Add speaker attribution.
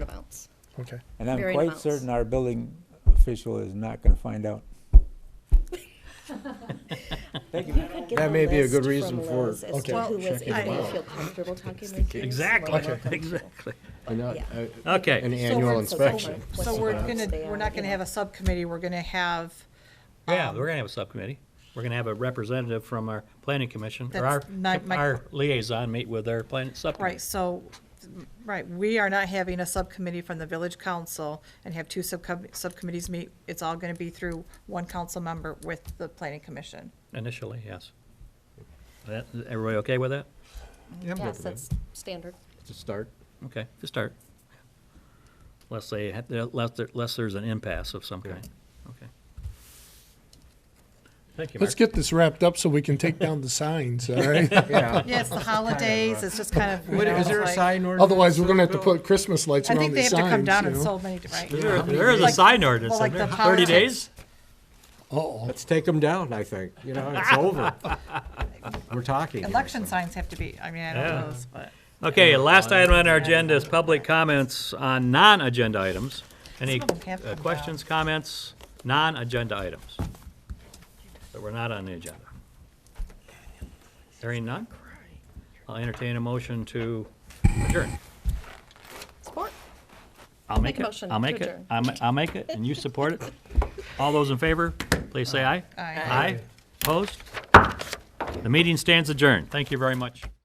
Speaker 1: Okay.
Speaker 2: And I'm
Speaker 3: Varying
Speaker 2: quite
Speaker 3: amounts.
Speaker 2: certain our building official is not gonna find out. Thank you.
Speaker 4: could get
Speaker 1: That
Speaker 4: the
Speaker 1: may be a
Speaker 4: list
Speaker 1: good
Speaker 4: from
Speaker 1: reason for it.
Speaker 4: Liz as to
Speaker 1: Okay.
Speaker 4: who was
Speaker 5: Check it
Speaker 4: in there.
Speaker 5: out.
Speaker 4: feel comfortable talking with you.
Speaker 5: Exactly,
Speaker 4: you're welcome to.
Speaker 5: exactly.
Speaker 1: And not,
Speaker 4: Yeah.
Speaker 1: uh,
Speaker 5: Okay.
Speaker 1: An
Speaker 4: So
Speaker 1: annual
Speaker 4: we're- so we're-
Speaker 1: inspection.
Speaker 4: what's
Speaker 6: So
Speaker 4: the
Speaker 6: we're
Speaker 4: box
Speaker 6: gonna,
Speaker 4: they
Speaker 6: we're
Speaker 4: are, you
Speaker 6: not gonna
Speaker 4: know.
Speaker 6: have a subcommittee, we're gonna have, Um,
Speaker 5: Yeah, we're gonna have a subcommittee. We're gonna have a representative from our planning commission, or our,
Speaker 6: That's not my-
Speaker 5: our liaison meet with our planning subcommittee.
Speaker 6: right, so, right, we are not having a subcommittee from the village council and have two subcom- subcommittees meet. It's all gonna be through one council member with the planning commission.
Speaker 5: Initially, yes. That, everybody okay with that?
Speaker 4: Yes, that's standard.
Speaker 1: To start.
Speaker 5: Okay, to start. Unless they, ha- unless, there- unless there's an impasse of some kind. Okay. Thank you, Mark.
Speaker 7: Let's get this wrapped up so we can take down the signs, all right?
Speaker 1: Yeah.
Speaker 6: Yeah, it's the holidays, it's just kind of, you
Speaker 1: What-
Speaker 6: know,
Speaker 1: Is there a
Speaker 6: like-
Speaker 1: sign ordinance?
Speaker 7: Otherwise, we're gonna have to put Christmas lights
Speaker 6: I think
Speaker 7: around
Speaker 6: they
Speaker 7: the
Speaker 6: have to come
Speaker 7: signs,
Speaker 6: down
Speaker 7: you
Speaker 6: in
Speaker 7: know?
Speaker 6: so many, right?
Speaker 5: There there is a
Speaker 6: Like-
Speaker 5: sign ordinance,
Speaker 6: well,
Speaker 5: isn't
Speaker 6: like
Speaker 5: there?
Speaker 6: the
Speaker 5: Thirty
Speaker 6: politics-
Speaker 5: days?
Speaker 7: Uh-oh,
Speaker 1: Let's take them down, I think. You know, it's over. We're talking. here,
Speaker 6: Election
Speaker 1: so.
Speaker 6: signs have to be, I mean, I don't know,
Speaker 5: Yeah.
Speaker 6: those, but.
Speaker 5: Okay, last item on our agenda is public comments on non-agenda items. Any
Speaker 6: Some of them have
Speaker 5: uh,
Speaker 6: come
Speaker 5: questions, comments, non-agenda items that were not on the agenda? Hearing none? I'll entertain a motion to adjourn.
Speaker 4: Support.
Speaker 5: I'll
Speaker 4: Make a
Speaker 5: make it,
Speaker 4: motion
Speaker 5: I'll
Speaker 4: to
Speaker 5: make it,
Speaker 4: adjourn.
Speaker 5: I'll ma- I'll make it, and you support it. All those in favor, please say aye.
Speaker 6: Aye.
Speaker 5: Aye, opposed? The meeting stands adjourned. Thank you very much.